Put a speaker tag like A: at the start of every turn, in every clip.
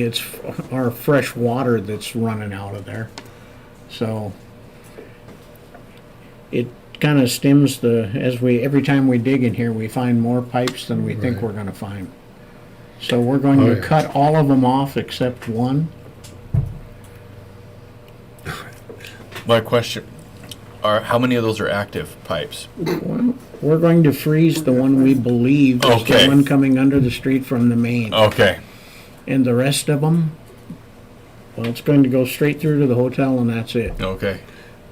A: it's f- our fresh water that's running out of there. So it kind of stems the, as we, every time we dig in here, we find more pipes than we think
B: Right.
A: we're gonna find. So we're going
B: Oh,
A: to
B: yeah.
A: cut all of them off except one.
C: My question are how many of those are active pipes?
A: We're going to freeze the one we believe is the
C: Okay. Oh.
A: one coming under the street from the main.
C: Okay.
A: And the rest of them, well, it's going to go straight through to the hotel and that's it.
C: Okay.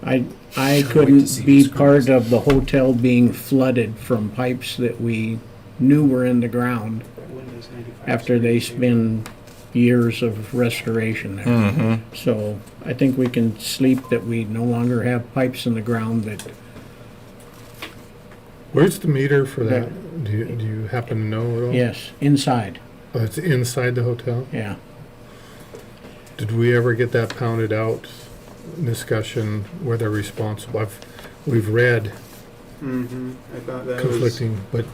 A: I, I
D: to see
A: couldn't be
D: what's
A: part of the hotel being flooded from pipes that we knew were in the ground
D: Windows 95.
A: after they spend years of restoration there.
B: Mm-hmm.
A: So I think we can sleep that we no longer have pipes in the ground that,
B: Where's the meter for that? Do you, do you happen to know at all?
A: yes, inside,
B: Oh, it's inside the hotel?
A: yeah.
B: Did we ever get that pounded out discussion where they're responsible? I've, we've read
D: Mhm, I thought that was,
B: conflicting, but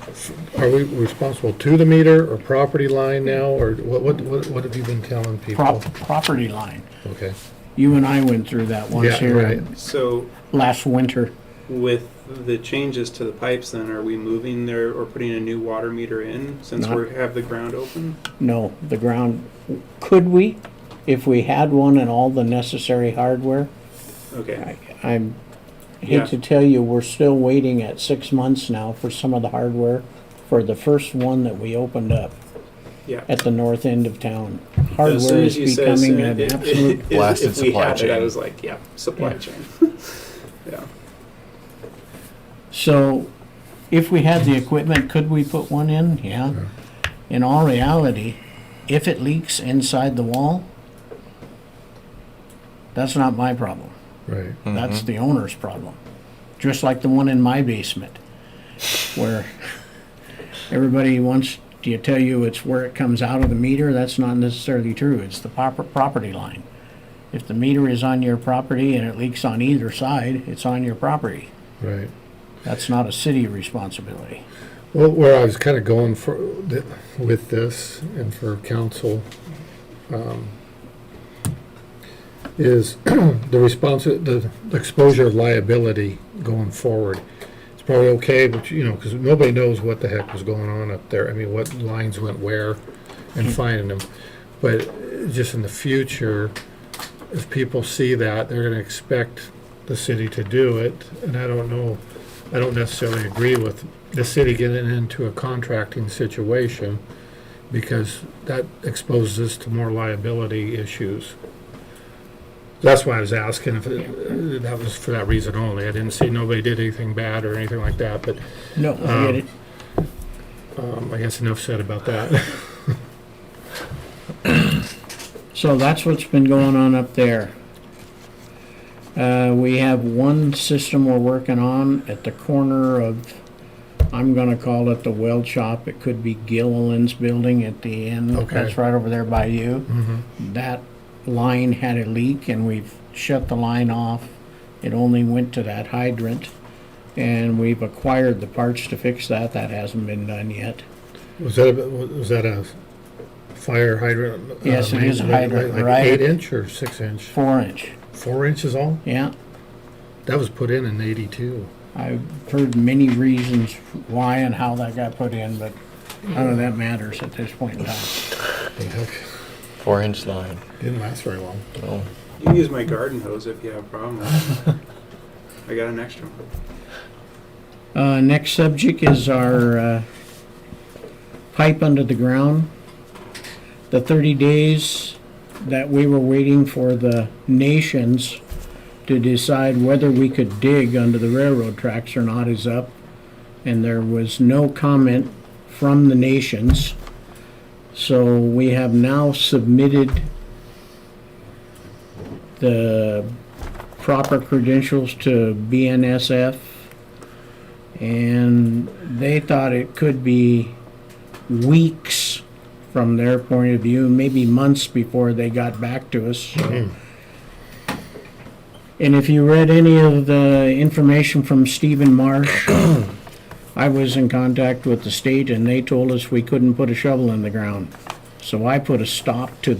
B: are we responsible to the meter or property line now? Or what, what, what what have you been telling people?
A: Prop, property line.
B: Okay.
A: You and I went through that once
B: Yeah,
A: here
B: right.
D: so
A: last winter.
D: with the changes to the pipes then, are we moving there or putting a new water meter in since
A: Not-
D: we have the ground open?
A: No, the ground, could we, if we had one and all the necessary hardware?
D: Okay,
A: I- I'm,
D: Yeah.
A: hate to tell you, we're still waiting at six months now for some of the hardware for the first one that we opened up
D: yeah.
A: at the north end of town.
D: As soon
A: Hardware is
D: as you said- as
A: becoming
D: soon-
A: an
D: it- it-
A: absolute,
D: if-
C: Blasted
D: If we
C: supply
D: had it, I
C: chain.
D: was like, yeah, supply
A: Yeah.
D: chain. Yeah,
A: so if we had the equipment, could we put one in? Yeah. In all reality, if it leaks inside the wall, that's not my problem.
B: Right.
A: That's the owner's problem. Just like the one in my basement, where everybody wants to tell you it's where it comes out of the meter. That's not necessarily true. It's the proper property line. If the meter is on your property and it leaks on either side, it's on your property.
B: Right.
A: That's not a city responsibility.
B: Well, where I was kind of going for, th- with this and for council, um, is the response, the exposure of liability going forward. It's probably okay, but you know, because nobody knows what the heck was going on up there. I mean, what lines went where and finding them. But just in the future, if people see that, they're gonna expect the city to do it. And I don't know, I don't necessarily agree with the city getting into a contracting situation because that exposes us to more liability issues. That's why I was asking if, it- that was for that reason only. I didn't see nobody did anything bad or anything like that, but
A: No, I get it.
B: um, I guess enough said about that.
A: So that's what's been going on up there. Uh, we have one system we're working on at the corner of, I'm gonna call it the weld shop. It could be Gilliland's building at the end.
B: Okay.
A: That's right over there by you. That line had a leak and we've shut the line off. It only went to that hydrant. And we've acquired the parts to fix that. That hasn't been done yet.
B: Was that, a- was that a fire hydrant? uh,
A: Yes, it is a
B: main- like-
A: hydrant,
B: like
A: right.
B: Eight inch or six inch?
A: Four inch,
B: Four inches all?
A: yeah.
B: That was put in in eighty-two.
A: I've heard many reasons why and how that got put in, but none of that matters at this point in time.
C: Four inch line.
B: Didn't last very long.
C: Oh.
D: you can use my garden hose if you have a problem with it. I got an extra one.
A: Uh, next subject is our, uh, pipe under the ground. The thirty days that we were waiting for the nations to decide whether we could dig under the railroad tracks or not is up. And there was no comment from the nations. So we have now submitted the proper credentials to BNSF. And they thought it could be weeks from their point of view, maybe months before they got back to us. And if you read any of the information from Stephen Marsh, I was in contact with the state and they told us we couldn't put a shovel in the ground. So I put a stop to